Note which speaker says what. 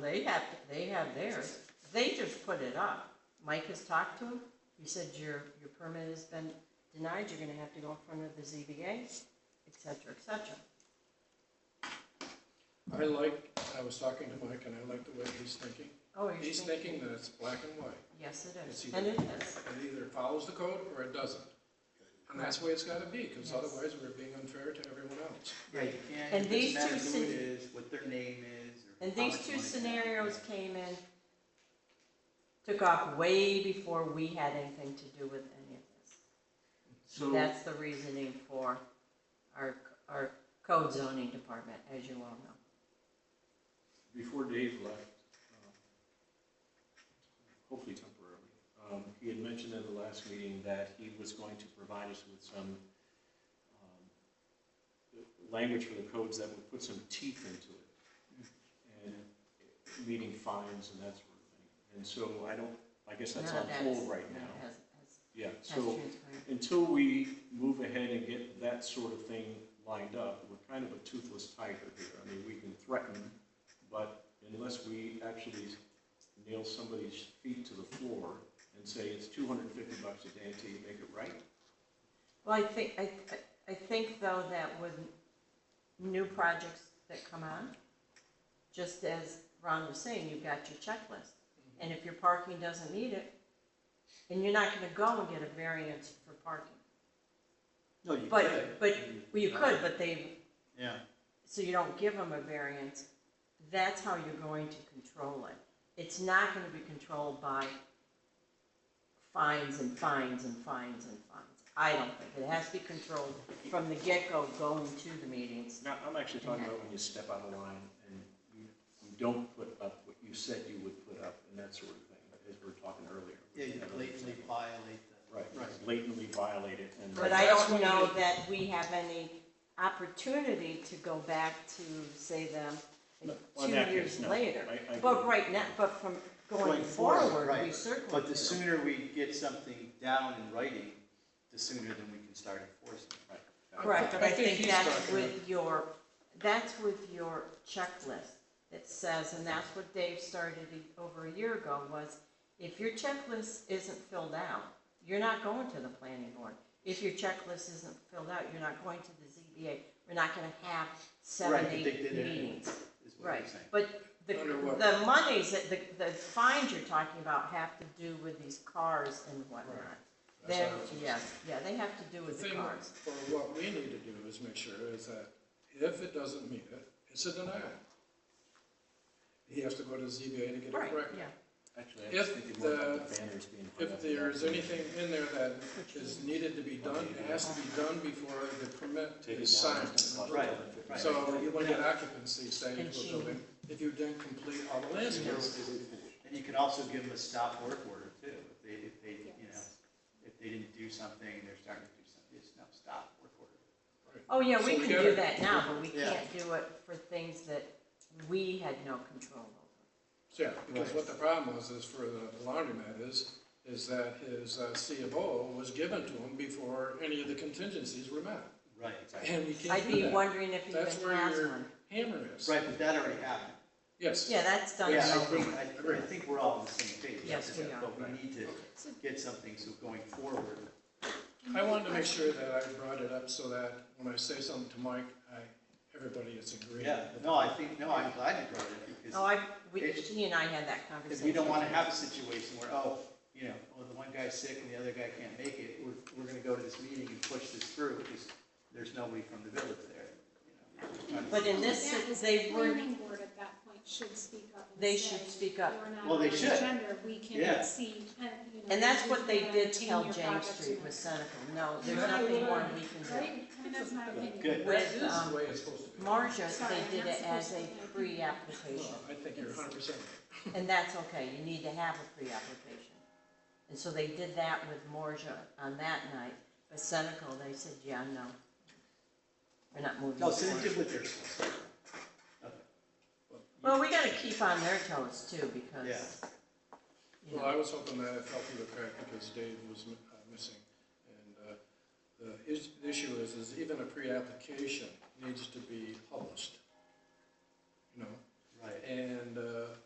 Speaker 1: they have, they have theirs. They just put it up. Mike has talked to him. He said, your, your permit has been denied, you're gonna have to go in front of the ZBA, et cetera, et cetera.
Speaker 2: I like, I was talking to Mike and I like the way he's thinking.
Speaker 1: Oh, you're
Speaker 2: He's
Speaker 1: thinking,
Speaker 2: thinking that it's black and white.
Speaker 1: yes, it
Speaker 2: It's
Speaker 1: is.
Speaker 2: either-
Speaker 1: And it is.
Speaker 2: It either follows the code or it doesn't. And that's the way it's gotta be, because
Speaker 1: Yes.
Speaker 2: otherwise we're being unfair to everyone else.
Speaker 3: Right,
Speaker 1: And
Speaker 3: and it
Speaker 1: these
Speaker 3: doesn't matter
Speaker 1: two
Speaker 3: who it
Speaker 1: scen-
Speaker 3: is, what their name is, or.
Speaker 1: And
Speaker 3: how
Speaker 1: these
Speaker 3: much
Speaker 1: two
Speaker 3: money they have.
Speaker 1: scenarios came in, took off way before we had anything to do with any of this.
Speaker 4: So,
Speaker 1: That's the reasoning for our, our code zoning department, as you all know.
Speaker 4: before Dave left, um, hopefully temporarily, um, he had mentioned at the last meeting that he was going to provide us with some um, language for the codes that would put some teeth into it, and meeting fines and that sort of thing. And so I don't, I guess that's
Speaker 1: None
Speaker 4: on
Speaker 1: of that is-
Speaker 4: hold right
Speaker 1: none of that
Speaker 4: now.
Speaker 1: has- has-
Speaker 4: Yeah,
Speaker 1: has
Speaker 4: so.
Speaker 1: transpired.
Speaker 4: until we move ahead and get that sort of thing lined up, we're kind of a toothless tiger here. I mean, we can threaten, but unless we actually nail somebody's feet to the floor and say it's two hundred and fifty bucks a day until you make it right,
Speaker 1: Well, I think, I, I- I think though that with new projects that come on, just as Ron was saying, you've got your checklist. And if your parking doesn't meet it, and you're not gonna go and get a variance for parking.
Speaker 3: No, you could,
Speaker 1: But, but, well, you could, but they,
Speaker 3: yeah.
Speaker 1: so you don't give them a variance, that's how you're going to control it. It's not gonna be controlled by fines and fines and fines and fines. I don't think, it has to be controlled from the get-go going to the meetings.
Speaker 4: No, I'm actually talking about when you step out of line and you, you don't put up what you said you would put up and that sort of thing, as we were talking earlier.
Speaker 3: Yeah, you blatantly violate the.
Speaker 4: Right,
Speaker 2: Right.
Speaker 4: blatantly violate it and.
Speaker 1: But I don't know that we have any opportunity to go back to, say, them
Speaker 4: On
Speaker 1: two
Speaker 4: that
Speaker 1: years
Speaker 4: case, no.
Speaker 1: later.
Speaker 4: I- I
Speaker 1: But
Speaker 4: agree.
Speaker 1: right now, but from going forward, we
Speaker 3: right.
Speaker 1: certainly.
Speaker 3: But the
Speaker 1: do.
Speaker 3: sooner we get something down in writing, the sooner then we can start enforcing. it.
Speaker 4: Right.
Speaker 1: Correct, but I think
Speaker 2: he's
Speaker 1: that's
Speaker 2: talking
Speaker 1: with your, that's with your checklist that says, and that's what Dave started a- over a year ago, was if your checklist isn't filled out, you're not going to the planning board. If your checklist isn't filled out, you're not going to the ZBA. We're not gonna have seven,
Speaker 3: Right, but they
Speaker 1: eight
Speaker 3: did it anyway.
Speaker 1: meetings.
Speaker 3: Is what
Speaker 1: Right,
Speaker 3: you're saying.
Speaker 1: but the,
Speaker 2: Under what?
Speaker 1: the monies, that- the, the fines you're talking about have to do with these cars and whatnot.
Speaker 2: That's
Speaker 1: Then,
Speaker 2: what I was just-
Speaker 1: yes, yeah, they have to do
Speaker 2: The
Speaker 1: with the
Speaker 2: thing,
Speaker 1: cars.
Speaker 2: or what we need to do is make sure is that if it doesn't meet it, it's a denial. He has to go to ZBA to get it
Speaker 1: Right,
Speaker 2: corrected.
Speaker 1: yeah.
Speaker 4: Actually, I was
Speaker 2: If
Speaker 4: thinking more about
Speaker 2: the-
Speaker 4: the banners being put
Speaker 2: If
Speaker 4: up.
Speaker 2: there's anything in there that is needed to be done, it has to be done before the permit
Speaker 4: Take
Speaker 2: is
Speaker 4: it down.
Speaker 2: signed.
Speaker 4: it's gonna cost
Speaker 3: Right,
Speaker 4: $250.
Speaker 3: right.
Speaker 2: So when you get occupancy stage
Speaker 1: And
Speaker 2: of a
Speaker 1: she-
Speaker 2: building, if you didn't complete all the landscapes,
Speaker 3: And you can also give them a stop work order too, if they, if they, you know, if they didn't do something, and they're starting to do something, it's now stop work order.
Speaker 1: Oh, yeah,
Speaker 2: So
Speaker 1: we
Speaker 2: we
Speaker 1: can
Speaker 2: got
Speaker 1: do
Speaker 2: it.
Speaker 1: that now, but we
Speaker 3: Yeah.
Speaker 1: can't do it for things that we had no control over.
Speaker 2: yeah, because what the problem was is for the laundromat is, is that his uh, C of O was given to him before any of the contingencies were met.
Speaker 3: Right, exactly.
Speaker 2: And we
Speaker 1: I'd
Speaker 2: can't do
Speaker 1: be
Speaker 2: that.
Speaker 1: wondering if he
Speaker 2: That's
Speaker 1: even
Speaker 2: where
Speaker 1: has
Speaker 2: your
Speaker 1: one.
Speaker 2: hammer is.
Speaker 3: Right, but that already happened.
Speaker 2: Yes.
Speaker 1: Yeah, that's done.
Speaker 3: Yeah, I
Speaker 1: now.
Speaker 3: think, I, I think we're all on the same page.
Speaker 1: Yes, we are.
Speaker 3: But we need to get something, so going forward,
Speaker 2: I wanted to make sure that I brought it up so that when I say something to Mike, I, everybody is in
Speaker 3: yeah,
Speaker 2: agreement.
Speaker 3: no, I think, no, I'm glad you brought it, up
Speaker 1: Oh,
Speaker 3: because,
Speaker 1: I, we,
Speaker 3: It's-
Speaker 1: she and I had that
Speaker 3: because
Speaker 1: conversation.
Speaker 3: we don't wanna have a situation where, oh, you know, oh, the one guy's sick and the other guy can't make it, we're, we're gonna go to this meeting and push this through, because there's nobody from the village there. you know.
Speaker 1: But in this,
Speaker 5: That is
Speaker 1: they
Speaker 5: the
Speaker 1: were,
Speaker 5: Planning board at that point should speak up and
Speaker 1: They
Speaker 5: say,
Speaker 1: should speak up.
Speaker 5: "We're not
Speaker 3: Well, they
Speaker 5: on the
Speaker 3: should.
Speaker 5: agenda. We
Speaker 3: Yeah.
Speaker 5: can see, and, you know.
Speaker 1: and that's
Speaker 5: we
Speaker 1: what they
Speaker 5: can
Speaker 1: did
Speaker 5: obtain
Speaker 1: tell
Speaker 5: your
Speaker 1: James
Speaker 5: products
Speaker 1: Street
Speaker 5: and-
Speaker 1: with Seneca. No, there's
Speaker 2: Yeah.
Speaker 1: nothing more we can do.
Speaker 5: Right? I mean, that's my opinion.
Speaker 3: Good.
Speaker 2: That
Speaker 1: With,
Speaker 2: is the
Speaker 1: um,
Speaker 2: way it's supposed to be. No,
Speaker 1: Marja,
Speaker 5: Sorry, I'm
Speaker 1: they did
Speaker 5: not
Speaker 1: it as a
Speaker 5: supposed to.
Speaker 1: pre-application,
Speaker 2: I think you're hundred percent.
Speaker 1: and that's okay, you need to have a pre-application. And so they did that with Marja on that night, but Seneca, they said, yeah, no. We're not moving.
Speaker 3: No,
Speaker 1: forward.
Speaker 3: so they did what they're supposed to do.
Speaker 1: Well, we gotta keep on their toes too, because.
Speaker 3: Yeah.
Speaker 1: you
Speaker 2: Well,
Speaker 1: know,
Speaker 2: I was hoping that it fell through the crack because Dave was mi- uh, missing. And, uh, the is, the issue is, is even a pre-application needs to be published. You know,
Speaker 3: Right,
Speaker 2: and, uh,